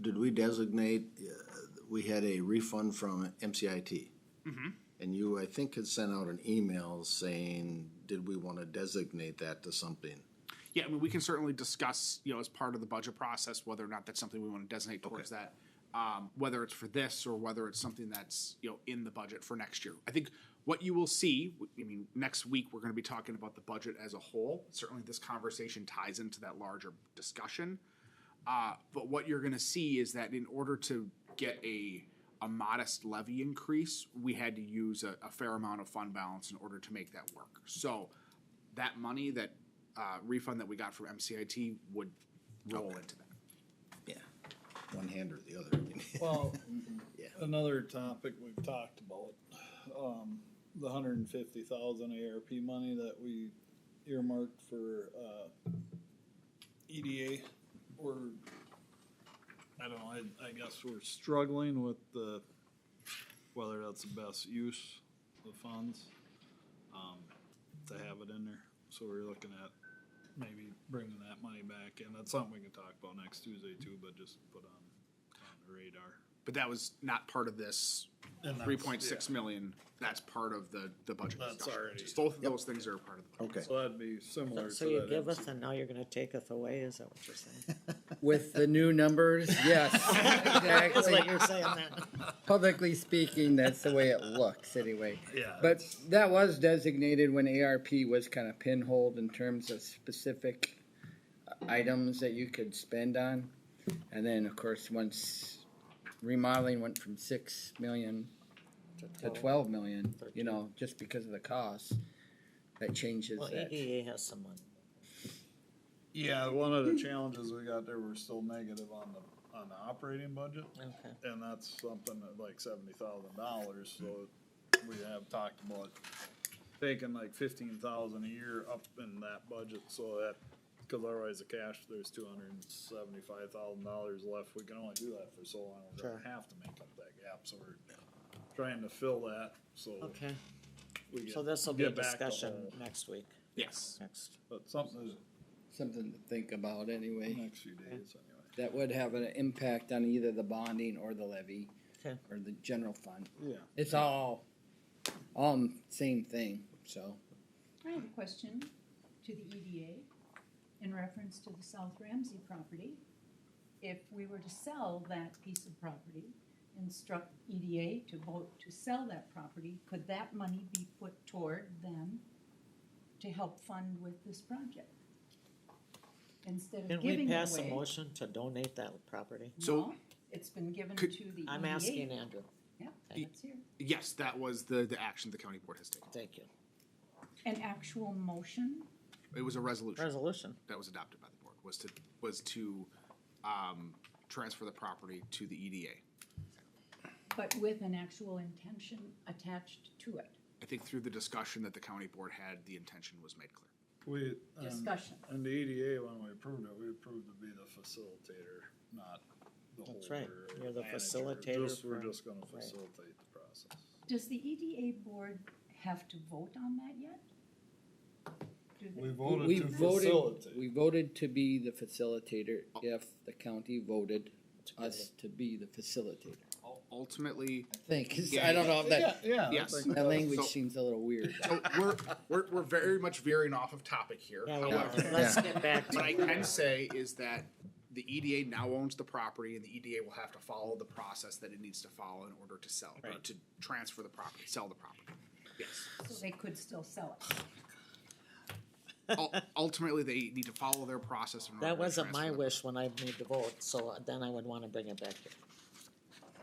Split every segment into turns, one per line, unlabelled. did we designate, uh, we had a refund from MCIT? And you, I think, had sent out an email saying, did we wanna designate that to something?
Yeah, I mean, we can certainly discuss, you know, as part of the budget process, whether or not that's something we want to designate towards that. Um, whether it's for this or whether it's something that's, you know, in the budget for next year. I think what you will see, I mean, next week, we're going to be talking about the budget as a whole. Certainly, this conversation ties into that larger discussion. Uh, but what you're going to see is that in order to get a a modest levy increase, we had to use a, a fair amount of fund balance in order to make that work. So that money, that uh, refund that we got from MCIT would roll into that.
Yeah. One hand or the other.
Well,
Yeah.
another topic we've talked about, um, the hundred and fifty thousand ARP money that we earmarked for, uh, EDA, we're, I don't know, I, I guess we're struggling with the, whether that's the best use of funds, um, to have it in there. So we're looking at maybe bringing that money back, and that's something we can talk about next Tuesday too, but just put on, on the radar.
But that was not part of this
And
three
that's-
point six million. That's part of the, the budget
That's
discussion.
already-
Just both of those things are a part of the budget.
Okay.
So that'd be similar to
So you
that
give
MC
us and now you're gonna take us away, is that what you're saying?
With the new numbers, yes,
That's what
exactly.
you're saying then.
Publicly speaking, that's the way it looks anyway.
Yeah.
But that was designated when ARP was kind of pinholed in terms of specific items that you could spend on. And then, of course, once remodeling went from six million to twelve million, you know, just because of the cost, that changes
Well,
that.
EDA has some money.
Yeah, one of the challenges we got there, we're still negative on the, on the operating budget,
Okay.
and that's something that like seventy thousand dollars, so we have talked about taking like fifteen thousand a year up in that budget, so that, cause otherwise the cash, there's two hundred and seventy-five thousand dollars left, we can only do that for so long, we're gonna
Sure.
have to make up that gap, so we're trying to fill that, so.
Okay,
we get-
so this'll be a
get back to
discussion
whole.
next week,
Yes.
next.
But something is
Something to think about
the
anyway.
next few days anyway.
That would have an impact on either the bonding or the levy.
Okay.
Or the general fund.
Yeah.
It's all, all same thing, so.
I have a question to the EDA in reference to the South Ramsey property. If we were to sell that piece of property, instruct EDA to vote to sell that property, could that money be put toward them to help fund with this project? Instead of
Can we
giving it
pass a
away,
motion to donate that property?
So-
no, it's been given to
Could-
the EDA.
I'm asking Andrew,
Yeah,
Y-
that's here.
Yes, that was the, the action the county board has taken.
thank you.
An actual motion?
It was a resolution
Resolution,
that was adopted by the board, was to, was to, um, transfer the property to the E EDA.
But with an actual intention attached to it,
I think through the discussion that the county board had, the intention was made clear.
We, and,
discussion.
and the EDA, when we approved it, we approved to be the facilitator, not the holder.
That's right.
or
You're the
manager.
facilitator
Just- We're
for-
just gonna
right.
facilitate the process.
Does the EDA board have to vote on that yet? Do they-
We voted
We
to
voted,
facilitate.
we voted to be the facilitator if the county voted us to be the facilitator.
Ul- Ultimately,
I think, 'cause I don't know if that,
yeah.
Yes.
that language
So-
seems a little weird.
so we're, we're, we're very much veering off of topic here,
yeah, we are.
however.
let's get back to.
What I can say is that the EDA now owns the property and the EDA will have to follow the process that it needs to follow in order to sell, or
Right.
to transfer the property, sell the property. Yes.
So they could still sell it.
Ul- Ultimately, they need to follow their process in order to
That wasn't
transfer
my
the-
wish when I made the vote, so then I would wanna bring it back here.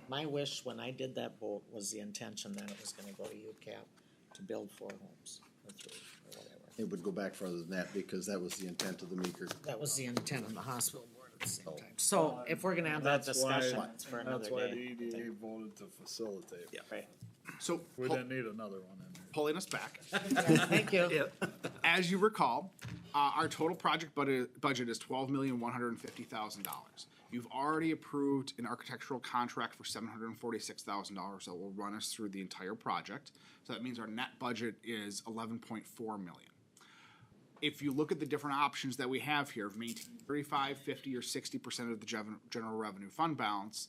My wish when I did that vote was the intention that it was gonna go to UCAP to build four homes, or three, or whatever.
It would go back further than that because that was the intent of the meeker.
That was the intent of the hospital board at the same time. So if we're gonna have that
That's why-
discussion, it's for another
That's why E the
day. I
EDA
think.
voted to facilitate.
Right.
So,
We
pull-
didn't need another one in there.
pulling us back,
Thank you.
as you recall, uh, our total project budget, budget is twelve million, one hundred and fifty thousand dollars. You've already approved an architectural contract for seven hundred and forty-six thousand dollars that will run us through the entire project. So that means our net budget is eleven point four million. if you look at the different options that we have here of maintaining 35, 50, or 60% of the gen- general revenue fund balance,